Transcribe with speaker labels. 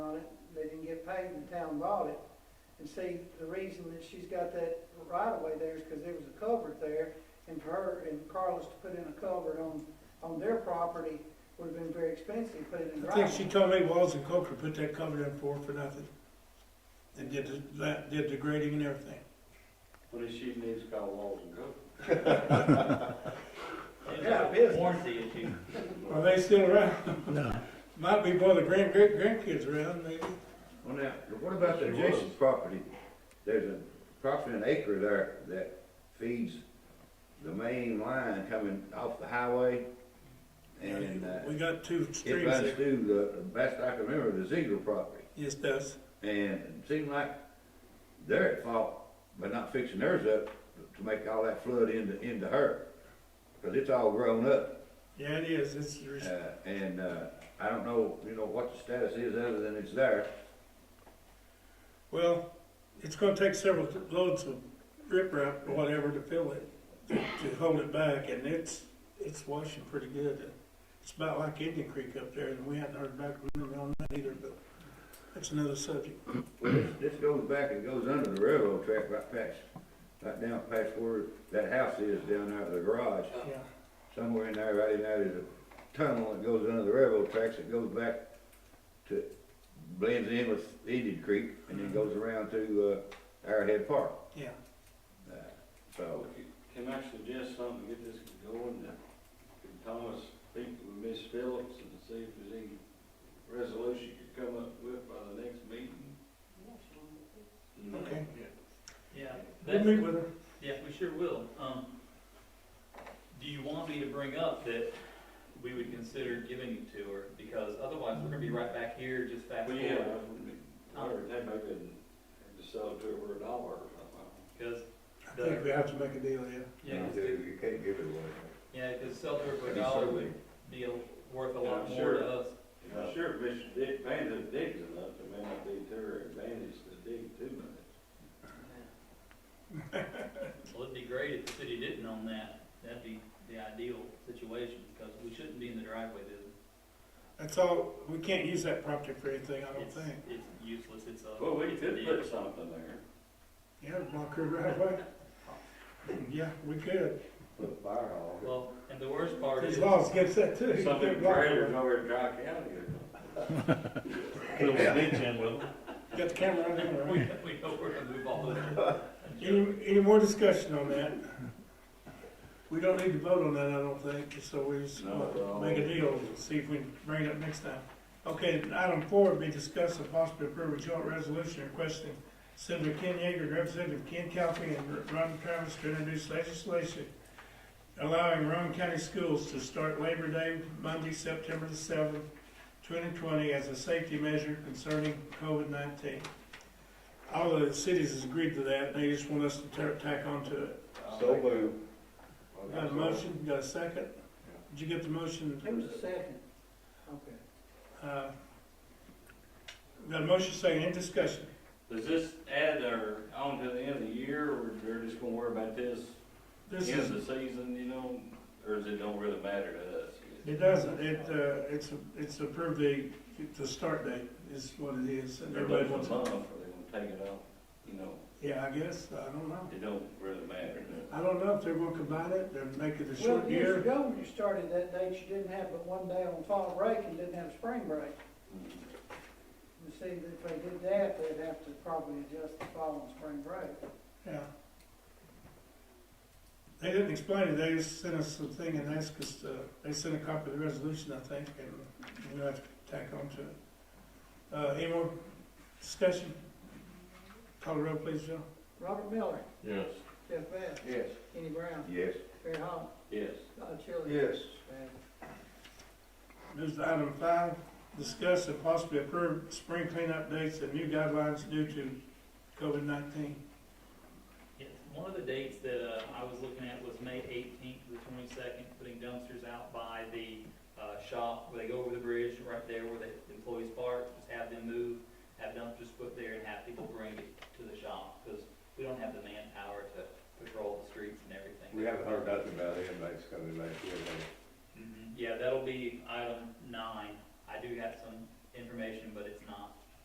Speaker 1: paid and the town bought it. And see, the reason that she's got that right of way there is because there was a culvert there, and for her and Carlos to put in a culvert on, on their property would have been very expensive, put it in the
Speaker 2: I
Speaker 1: right.
Speaker 2: think she told me Walls and Coker put that cover in for, for nothing. And did the, that- did the grading and everything.
Speaker 3: What if she needs to call Walls and go?
Speaker 1: Yeah, business.
Speaker 4: Warranty issue.
Speaker 2: Are they still around?
Speaker 5: No.
Speaker 2: Might be while the grand, great grandkids around, maybe.
Speaker 6: Well, now, what about the
Speaker 3: Yes, it was.
Speaker 6: adjacent property? There's a, approximately an acre there that feeds the main line coming off the highway. And, uh,
Speaker 2: We got two
Speaker 6: it
Speaker 2: streams
Speaker 6: runs
Speaker 2: there.
Speaker 6: through the, best I can remember, the Ziegler property.
Speaker 2: Yes, it does.
Speaker 6: And it seemed like they're at fault by not fixing theirs up to make all that flood into, into her. Cause it's all grown up,
Speaker 2: Yeah, it is. It's,
Speaker 6: uh, and, uh, I don't know, you know, what the status is other than it's there.
Speaker 2: well, it's gonna take several loads of riprap or whatever to fill it, to hold it back, and it's, it's washing pretty good. It's about like Indian Creek up there, and we hadn't heard back from them on that either, but that's another subject.
Speaker 6: Well, this, this goes back and goes under the railroad track right past, right down past where that house is down there, the garage.
Speaker 2: Yeah.
Speaker 6: Somewhere in there, right in there, there's a tunnel that goes under the railroad tracks that goes back to, blends in with Indian Creek and then goes around to, uh, Arrowhead Park.
Speaker 2: Yeah.
Speaker 6: Uh, So,
Speaker 3: Can I suggest something to get this going? That- Can Thomas speak with Miss Phillips and see if there's any resolution you could come up with by the next meeting? Mm. You know,
Speaker 2: Okay.
Speaker 4: Yeah.
Speaker 2: We'll
Speaker 4: that's-
Speaker 2: meet with her.
Speaker 4: Yeah, we sure will. Um, do you want me to bring up that we would consider giving it to her? Because otherwise, we're gonna be right back here, just fast
Speaker 3: Well, yeah,
Speaker 4: forward.
Speaker 3: I would, they may couldn't just sell it to her for a dollar or something.
Speaker 4: Because,
Speaker 2: I think we have to make a deal, yeah.
Speaker 4: yeah, because,
Speaker 6: you can't give it away.
Speaker 4: yeah, because sell to her for a dollar would be a- worth a lot
Speaker 3: Yeah,
Speaker 4: more
Speaker 3: sure.
Speaker 4: to us.
Speaker 3: And I'm sure if Mr. Dick Van Hook digs enough, it may not be to her advantage to dig too much.
Speaker 4: Well, it'd be great if the city didn't own that. That'd be the ideal situation, because we shouldn't be in the driveway business.
Speaker 2: That's all, we can't use that property for anything, I don't
Speaker 4: It's,
Speaker 2: think.
Speaker 4: it's useless, it's a.
Speaker 3: Well, we could
Speaker 4: it's a-
Speaker 3: put something there.
Speaker 2: Yeah, block her right away. Yeah, we could.
Speaker 6: Put a fire hall.
Speaker 4: Well, and the worst part
Speaker 2: His
Speaker 4: is.
Speaker 2: laws gets that too. You
Speaker 3: Something
Speaker 2: can't block her.
Speaker 3: trailers over at Dry County or
Speaker 7: Put a little ditch in with them.
Speaker 2: Got the camera on him,
Speaker 4: We,
Speaker 2: right?
Speaker 4: we know we're gonna move all this.
Speaker 2: Any, any more discussion on that? We don't need to vote on that, I don't think, so we just
Speaker 3: No, no.
Speaker 2: make a deal, and see if we can bring it up next time. Okay, item four would be discuss and possibly approve a joint resolution requesting Senator Ken Yeager, and Representative Ken Calfee, and Ron Travis to introduce legislation allowing Rowan County schools to start Labor Day, Monday, September the seventh, twenty twenty, as a safety measure concerning COVID nineteen. All of the cities has agreed to that, and they just want us to ta- tack on to it.
Speaker 6: So moved.
Speaker 2: Got a motion, got a second? Did you get the motion?
Speaker 1: It was a second. Okay.
Speaker 2: Uh, Got a motion, second, any discussion?
Speaker 3: Does this add or on to the end of the year, or they're just gonna worry about this
Speaker 2: This
Speaker 3: end
Speaker 2: is,
Speaker 3: of the season, you know? Or does it don't really matter to us?
Speaker 2: it doesn't, it, uh, it's, it's approved the, the start date is what it is, and
Speaker 3: Everybody
Speaker 2: everybody
Speaker 3: wants
Speaker 2: wants
Speaker 3: a
Speaker 2: it.
Speaker 3: month, or they gonna take it off, you know,
Speaker 2: Yeah, I guess, I don't know.
Speaker 3: it don't really matter.
Speaker 2: I don't know if they're gonna combine it, or make it a
Speaker 1: Well,
Speaker 2: short
Speaker 1: years
Speaker 2: year.
Speaker 1: ago, when you started that date, you didn't have but one day on fall break and didn't have spring break. You see, if they did that, they'd have to probably adjust the fall and spring break.
Speaker 2: Yeah. They didn't explain it, they just sent us the thing and asked us, to they sent a copy of the resolution, I think, and we'll have to tack on to it. Uh, any more discussion? Call the roll, please, Joe.
Speaker 1: Robert Miller,
Speaker 7: Yes.
Speaker 1: Jeff Bass,
Speaker 6: Yes.
Speaker 1: Kenny Brown,
Speaker 6: Yes.
Speaker 1: Terry Hall,
Speaker 3: Yes.
Speaker 1: Todd Chili.
Speaker 6: Yes.
Speaker 1: Bad.
Speaker 2: Moves to item five, discuss and possibly approve spring cleanup dates and new guidelines due to COVID nineteen.
Speaker 4: Yes, one of the dates that, uh, I was looking at was May eighteenth to the twenty-second, putting dumpsters out by the, uh, shop, where they go over the bridge, right there where the employees park, just have them move Mm-hmm.